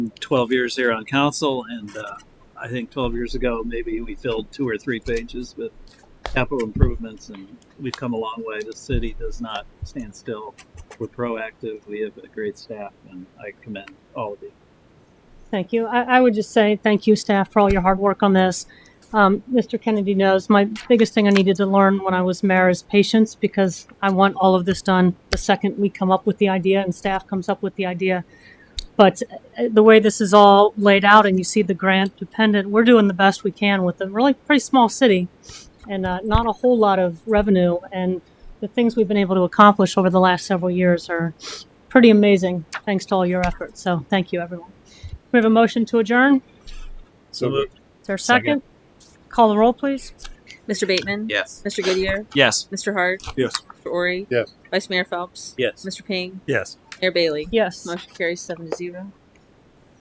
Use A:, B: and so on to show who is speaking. A: 12 years here on council, and uh, I think 12 years ago, maybe we filled two or three pages with capital improvements, and we've come a long way. The city does not stand still. We're proactive. We have a great staff, and I commend all of you.
B: Thank you. I, I would just say thank you, staff, for all your hard work on this. Um, Mr. Kennedy knows my biggest thing I needed to learn when I was mayor is patience because I want all of this done the second we come up with the idea and staff comes up with the idea. But uh, the way this is all laid out and you see the grant dependent, we're doing the best we can with a really pretty small city and uh, not a whole lot of revenue. And the things we've been able to accomplish over the last several years are pretty amazing thanks to all your efforts. So thank you, everyone. We have a motion to adjourn.
C: So moved.
B: Is there a second? Call the roll, please.
D: Mr. Bateman?
E: Yes.
D: Mr. Goodyear?
E: Yes.
D: Mr. Hart?
C: Yes.
D: Mr. Ori?
C: Yes.
D: Vice Mayor Phelps?
E: Yes.
D: Mr. Ping?
C: Yes.
D: Mayor Bailey?
B: Yes.
D: Motion carries seven to zero.